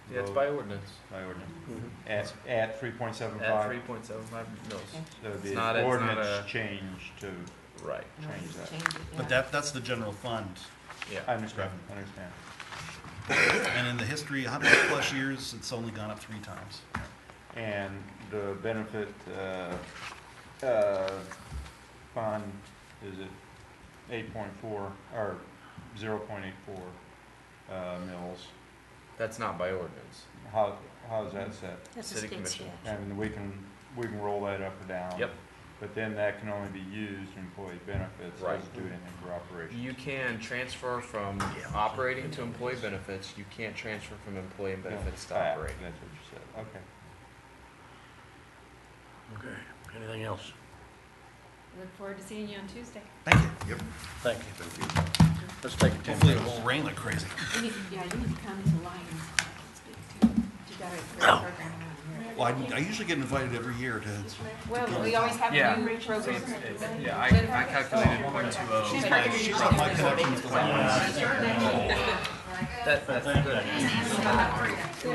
Yeah, it's vote by ordinance, by ordinance. Mhm. Mm-hmm. At, at three point seven at five, three point seven five mils, that would it's be not- it's an not ordinance a- change to, right, Change that. Change it, But yeah. that, that's the general fund. I yeah. understand, I understand. And in the history, hundred plus years, it's only gone up three times. And the benefit, uh, uh, fund is at eight point four, or zero point eight four, uh, mills. That's not by ordinance. How, how is that set? That's a City state commission. statute. And we can, we can roll that up or down. Yep. But then that can only be used in employee benefits, Right. doesn't do anything for operations. You can transfer from operating to employee benefits, you can't transfer from employee and benefits to Ah, operating. That's what you said, okay. Okay, anything else? Look forward to seeing you on Tuesday. Thank you. Thank you. Thank you. Let's take a ten Hopefully it minutes. won't rain like crazy. You need, yeah, you need to come to Lions. You got a great program on here. Well, I, I usually get invited every year to, Well, we always have Yeah, a new So program. it's- it's- Yeah, I, I calculated point two She's oh. not gonna she's use on my it. connection with the. That, that's good. She's not gonna-